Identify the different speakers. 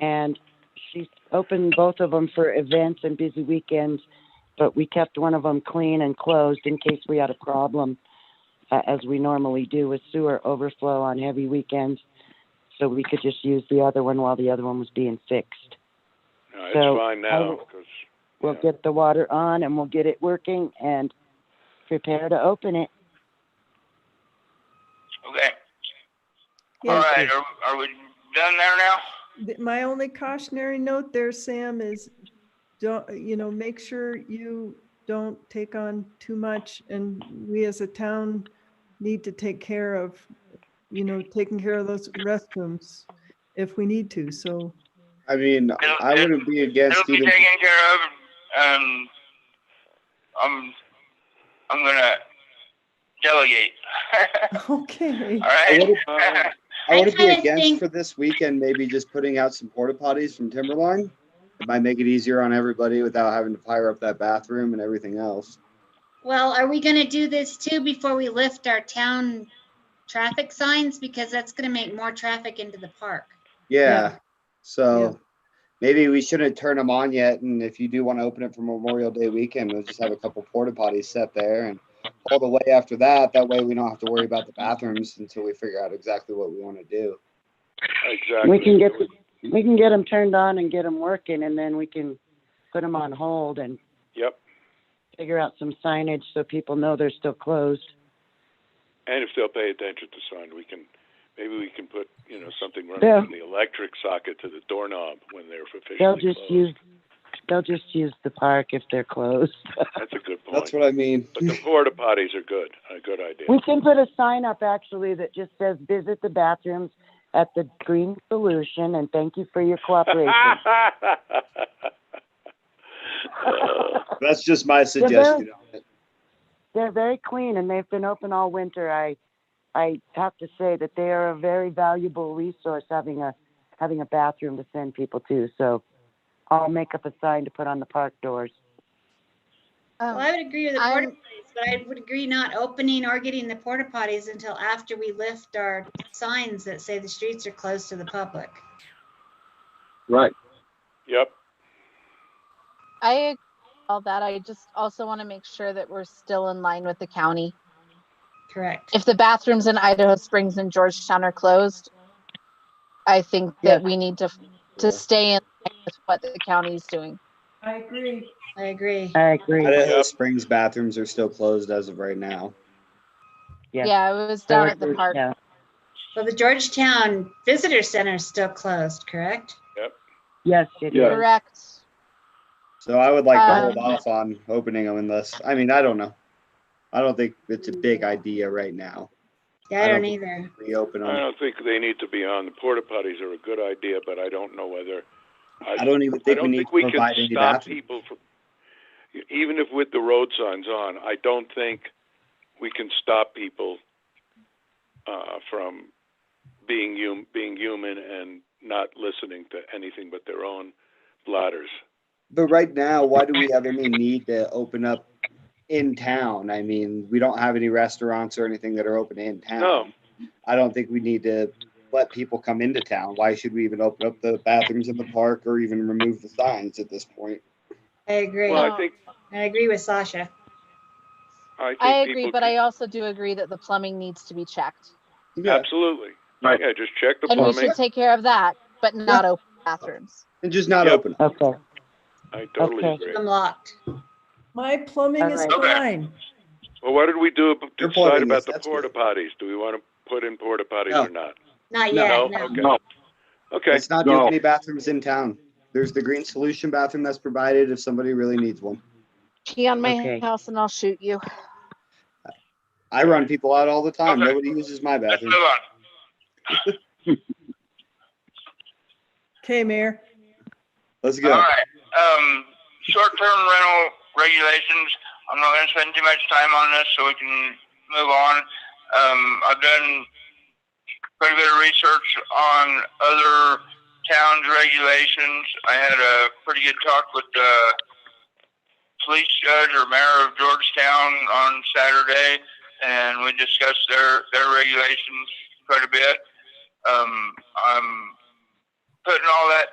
Speaker 1: and she opened both of them for events and busy weekends, but we kept one of them clean and closed in case we had a problem, uh, as we normally do with sewer overflow on heavy weekends. So we could just use the other one while the other one was being fixed.
Speaker 2: No, it's
Speaker 1: So,
Speaker 2: fine now,
Speaker 1: will-
Speaker 2: because,
Speaker 1: We'll
Speaker 2: Yeah.
Speaker 1: get the water on and we'll get it working and prepare to open it.
Speaker 3: Okay, all
Speaker 4: Yes.
Speaker 3: right, are, are we done there now?
Speaker 4: Th- My only cautionary note there, Sam, is don't, you know, make sure you don't take on too much. And we as a town need to take care of, you know, taking care of those restrooms if we need to. So
Speaker 5: I mean, I wouldn't be against
Speaker 3: It'll be
Speaker 5: even.
Speaker 3: taken care of, um, I'm, I'm gonna delegate,
Speaker 4: Okay,
Speaker 3: all
Speaker 5: I
Speaker 3: right?
Speaker 5: wouldn't,
Speaker 2: Uh,
Speaker 5: I wouldn't be
Speaker 6: kinda
Speaker 5: against
Speaker 6: think-
Speaker 5: for this weekend, maybe just putting out some porta potties from Timberline. It might make it easier on everybody without having to fire up that bathroom and everything else.
Speaker 6: Well, are we gonna do this too before we lift our town traffic signs? Because that's gonna make more traffic into the park.
Speaker 5: Yeah,
Speaker 4: Yeah. Yeah.
Speaker 5: so maybe we shouldn't turn them on yet, and if you do want to open it for Memorial Day weekend, we'll just have a couple porta potties set there and all the way after that, that way we don't have to worry about the bathrooms until we figure out exactly what we want to do.
Speaker 2: exactly.
Speaker 1: We can get, we can get them turned on and get them working and then we can put them on hold and
Speaker 2: Yep,
Speaker 1: figure out some signage so people know they're still closed.
Speaker 2: and if they'll pay attention to sign, we can, maybe we can put, you know, something
Speaker 1: Yeah.
Speaker 2: running from the electric socket to the doorknob when they're officially
Speaker 1: They'll
Speaker 2: closed.
Speaker 1: just use, they'll just use the park if they're closed.
Speaker 2: That's a good point.
Speaker 5: That's what I mean.
Speaker 2: But the porta potties are good, a good idea.
Speaker 1: We can put a sign up actually that just says, visit the bathrooms at the Green Solution and thank you for your cooperation.
Speaker 2: Uh,
Speaker 5: That's just my suggestion. on it.
Speaker 1: They're very clean and they've been open all winter. I, I have to say that they are a very valuable resource having a, having a bathroom to send people to. So I'll make up a sign to put on the park doors.
Speaker 7: Oh.
Speaker 6: Well, I would agree with the
Speaker 7: I'm-
Speaker 6: porta potties, but I would agree not opening or getting the porta potties until after we lift our signs that say the streets are closed to the public.
Speaker 5: Right.
Speaker 2: Yep,
Speaker 7: I agree with all that. I just also want to make sure that we're still in line with the county.
Speaker 6: Correct.
Speaker 7: If the bathrooms in Idaho Springs and Georgetown are closed, I think that
Speaker 1: Yes.
Speaker 7: we need to to stay in line with what the county's doing.
Speaker 4: I agree.
Speaker 6: I agree.
Speaker 1: I agree.
Speaker 5: Idaho Springs bathrooms are still closed as of right now.
Speaker 1: Yeah.
Speaker 7: Yeah, I was down at the park.
Speaker 1: Yeah.
Speaker 6: Well, the Georgetown Visitor Center is still closed, correct?
Speaker 1: Yes, it
Speaker 2: Yeah.
Speaker 1: is.
Speaker 7: Correct.
Speaker 5: So I would like to hold
Speaker 7: Um,
Speaker 5: off on opening them unless, I mean, I don't know. I don't think it's a big idea right now.
Speaker 6: Yeah,
Speaker 5: I
Speaker 6: I
Speaker 5: don't
Speaker 6: don't either.
Speaker 5: Reopen
Speaker 2: I
Speaker 5: them.
Speaker 2: don't think they need to be on, the porta potties are a good idea, but I don't know whether.
Speaker 5: I don't even
Speaker 2: I
Speaker 5: think we
Speaker 2: don't
Speaker 5: need
Speaker 2: think we
Speaker 5: to
Speaker 2: can
Speaker 5: provide any
Speaker 2: stop
Speaker 5: bathrooms.
Speaker 2: people from, even if with the road signs on, I don't think we can stop people, uh, from being hum, being human and not listening to anything but their own bladders.
Speaker 5: But right now, why do we have any need to open up in town? I mean, we don't have any restaurants or anything that are open in town.
Speaker 2: No.
Speaker 5: I don't think we need to let people come into town. Why should we even open up the bathrooms in the park or even remove the signs at this point?
Speaker 6: I agree.
Speaker 2: Well,
Speaker 6: I
Speaker 2: I think,
Speaker 6: agree with Sasha.
Speaker 2: I think.
Speaker 7: I agree,
Speaker 2: people
Speaker 7: but
Speaker 2: can-
Speaker 7: I also do agree that the plumbing needs to be checked.
Speaker 5: Yeah,
Speaker 2: Absolutely.
Speaker 5: Right.
Speaker 2: Yeah, just check the
Speaker 7: And we
Speaker 2: plumbing.
Speaker 7: should take care of that, but not open bathrooms.
Speaker 5: and just not
Speaker 2: Yep.
Speaker 5: open 'em.
Speaker 1: Okay.
Speaker 2: I totally
Speaker 1: Okay.
Speaker 2: agree.
Speaker 6: I'm locked.
Speaker 4: My plumbing is
Speaker 1: All
Speaker 3: right.
Speaker 4: fine.
Speaker 2: Well, what did we do, ab-
Speaker 5: You're
Speaker 2: decide
Speaker 5: plugging
Speaker 2: about
Speaker 5: this,
Speaker 2: the
Speaker 5: that's
Speaker 2: porta
Speaker 5: good.
Speaker 2: potties? Do we want to put in porta
Speaker 5: No.
Speaker 2: potties or not?
Speaker 6: Not
Speaker 5: No.
Speaker 6: yet, no.
Speaker 2: Okay. Okay,
Speaker 5: Let's not do any bathrooms in town. There's the green solution bathroom that's provided if somebody really needs one.
Speaker 7: Pee on my
Speaker 1: Okay.
Speaker 7: house and I'll shoot you.
Speaker 5: I run people out all the time.
Speaker 3: Okay.
Speaker 5: Nobody uses my
Speaker 3: Let's
Speaker 5: bathroom.
Speaker 3: move on.
Speaker 4: Okay, Mayor.
Speaker 5: Let's
Speaker 3: All
Speaker 5: go.
Speaker 3: right, um, short-term rental regulations, I'm not gonna spend too much time on this, so we can move on. Um, I've done quite a bit of research on other towns' regulations. I had a pretty good talk with the police judge or mayor of Georgetown on Saturday, and we discussed their, their regulations quite a bit. Um, I'm putting all that